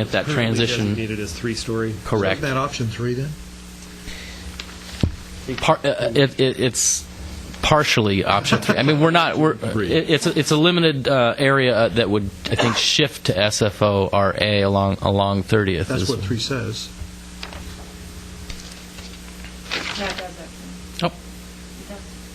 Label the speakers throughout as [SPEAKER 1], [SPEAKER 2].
[SPEAKER 1] At that
[SPEAKER 2] Currently
[SPEAKER 1] transition,
[SPEAKER 2] Designated as three-story.
[SPEAKER 1] correct.
[SPEAKER 3] Isn't that option three then?
[SPEAKER 1] Par- uh, uh, it, it, it's partially option three. I mean, we're not. We're uh, it, it's a, it's a limited uh, area uh, that would I think shift to SFO RA along along 30th.
[SPEAKER 3] That's
[SPEAKER 1] is-
[SPEAKER 3] what three says.
[SPEAKER 4] That does it.
[SPEAKER 1] Oh.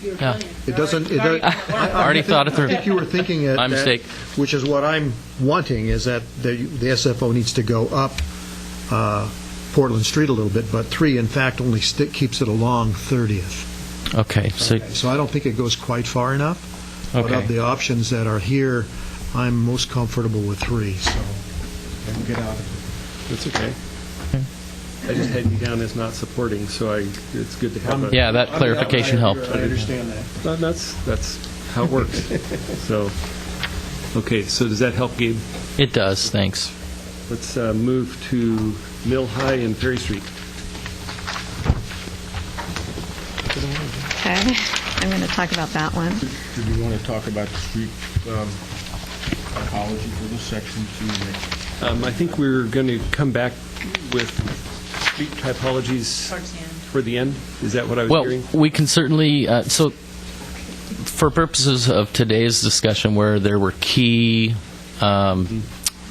[SPEAKER 4] You're
[SPEAKER 1] Yeah.
[SPEAKER 4] brilliant.
[SPEAKER 3] It doesn't, it,
[SPEAKER 4] You're
[SPEAKER 3] does-
[SPEAKER 4] already-
[SPEAKER 3] I
[SPEAKER 4] you're
[SPEAKER 3] I-
[SPEAKER 4] already-
[SPEAKER 3] I
[SPEAKER 1] Already
[SPEAKER 3] think-
[SPEAKER 1] thought it through.
[SPEAKER 3] I think you were thinking at
[SPEAKER 1] My
[SPEAKER 3] that,
[SPEAKER 1] mistake.
[SPEAKER 3] which is what I'm wanting, is that the the SFO needs to go up uh, Portland Street a little bit, but three, in fact, only stick, keeps it along 30th.
[SPEAKER 1] Okay. So
[SPEAKER 3] So I don't think it goes quite far enough. But
[SPEAKER 1] Okay.
[SPEAKER 3] of the options that are here, I'm most comfortable with three, so. we'll Get out of it.
[SPEAKER 2] That's okay. I just had you down as not supporting, so I, it's good to have a.
[SPEAKER 1] yeah, that clarification helped.
[SPEAKER 3] I understand that.
[SPEAKER 2] That- That's, that's how it works. So, okay, so does that help, Gabe?
[SPEAKER 1] It does. Thanks.
[SPEAKER 2] Let's uh, move to Mill High and Perry Street.
[SPEAKER 5] Okay, I'm going to talk about that one.
[SPEAKER 6] Did we want to talk about the street um, topology for this section to make
[SPEAKER 2] Um, I think we're going to come back with street typologies
[SPEAKER 4] Towards the end.
[SPEAKER 2] for the end. Is that what I was
[SPEAKER 1] Well,
[SPEAKER 2] hearing?
[SPEAKER 1] we can certainly, uh, so, for purposes of today's discussion, where there were key um,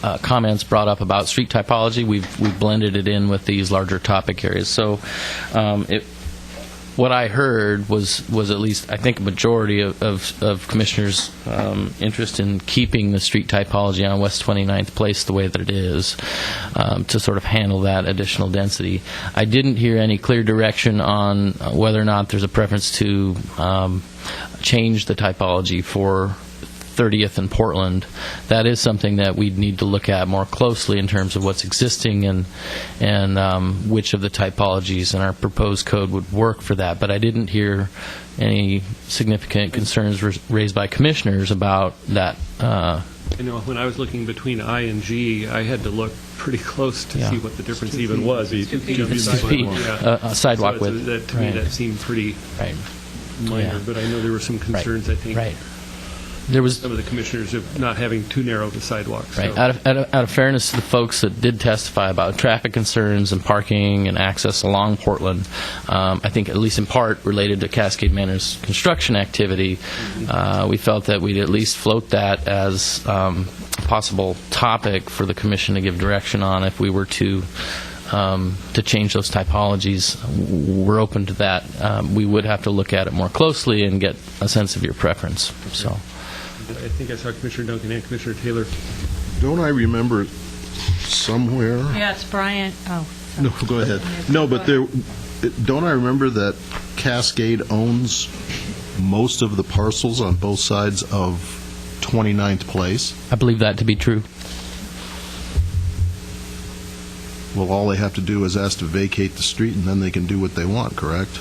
[SPEAKER 1] uh, comments brought up about street typology, we've we've blended it in with these larger topic areas. So, um, it, what I heard was, was at least, I think, a majority of, of, of commissioners' um, interest in keeping the street typology on West 29th Place the way that it is um, to sort of handle that additional density. I didn't hear any clear direction on whether or not there's a preference to um, change the typology for 30th in Portland. That is something that we'd need to look at more closely in terms of what's existing and, and um, which of the typologies in our proposed code would work for that. But I didn't hear any significant concerns rais- raised by commissioners about that. uh,
[SPEAKER 2] I know, when I was looking between I and G, I had to look pretty close to
[SPEAKER 1] Yeah.
[SPEAKER 2] see what the difference even was. It's two feet.
[SPEAKER 1] It's two feet, uh, uh, sidewalk
[SPEAKER 2] So it's-
[SPEAKER 1] width.
[SPEAKER 2] that- To me,
[SPEAKER 1] Right.
[SPEAKER 2] that seemed pretty
[SPEAKER 1] Right, Yeah.
[SPEAKER 2] minor, but I know there were some concerns, I think.
[SPEAKER 1] right. There was,
[SPEAKER 2] Some of the commissioners of not having too narrow of a sidewalk. so-
[SPEAKER 1] Right. Uh, Out of, out, of, out of fairness to the folks that did testify about traffic concerns and parking and access along Portland, um, I think at least in part related to Cascade Manor's construction activity, uh, we felt that we'd at least float that as um, a possible topic for the commission to give direction on if we were to. Um, to change those typologies, W- we're open to that. Um, we would have to look at it more closely and get a sense of your preference. So,
[SPEAKER 2] I think I saw Commissioner Duncan and Commissioner Taylor.
[SPEAKER 7] Don't I remember somewhere?
[SPEAKER 4] Yeah, it's Brian, oh.
[SPEAKER 7] No, go ahead. No, but there, don't I remember that Cascade owns most of the parcels on both sides of 29th Place?
[SPEAKER 1] I believe that to be true.
[SPEAKER 7] Well, all they have to do is ask to vacate the street, and then they can do what they want, correct?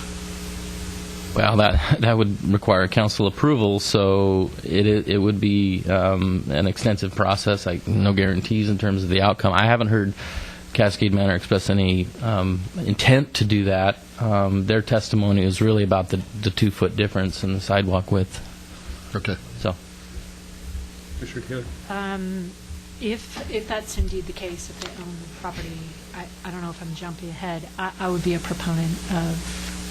[SPEAKER 1] Well, that that would require council approval, so it i- it would be um, an extensive process. I no guarantees in terms of the outcome. I haven't heard Cascade Manor express any um, intent to do that. Um, their testimony is really about the the two foot difference in the sidewalk width.
[SPEAKER 7] Okay.
[SPEAKER 1] So
[SPEAKER 2] Commissioner Taylor?
[SPEAKER 8] Um, If, if that's indeed the case, if they own the property, I, I don't know if I'm jumping ahead, I, I would be a proponent of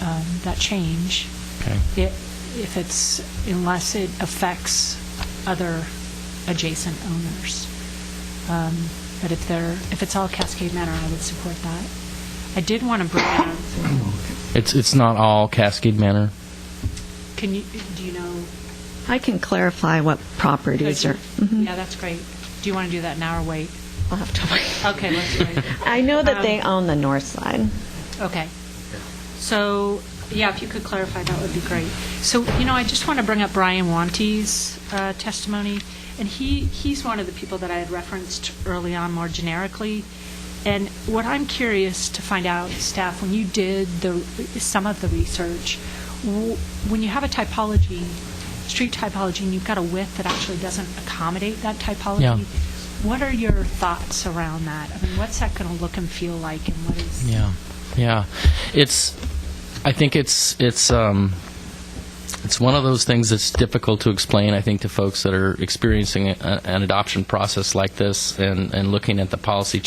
[SPEAKER 8] um, that change.
[SPEAKER 1] Okay.
[SPEAKER 8] I- If it's, unless it affects other adjacent owners. Um, But if they're, if it's all Cascade Manor, I would support that. I did want to bring up,
[SPEAKER 1] it's it's not all Cascade Manor.
[SPEAKER 8] can you, do you know?
[SPEAKER 5] I can clarify what properties are. Mhm.
[SPEAKER 8] Yeah, that's great. Do you want to do that now or wait?
[SPEAKER 5] I'll have to wait.
[SPEAKER 8] Okay, let's wait.
[SPEAKER 5] I know that they
[SPEAKER 8] Um,
[SPEAKER 5] own the north side.
[SPEAKER 8] Okay. So, yeah, if you could clarify, that would be great. So, you know, I just want to bring up Brian Wanty's uh, testimony, and he, he's one of the people that I had referenced early on more generically. And what I'm curious to find out, staff, when you did the, some of the research, w- when you have a typology, street typology, and you've got a width that actually doesn't accommodate that typology,
[SPEAKER 1] Yeah.
[SPEAKER 8] what are your thoughts around that? I mean, what's that going to look and feel like, and what is?
[SPEAKER 1] Yeah, yeah. It's. I think it's it's um, it's one of those things that's difficult to explain. I think to folks that are experiencing a, an adoption process like this and and looking at the policy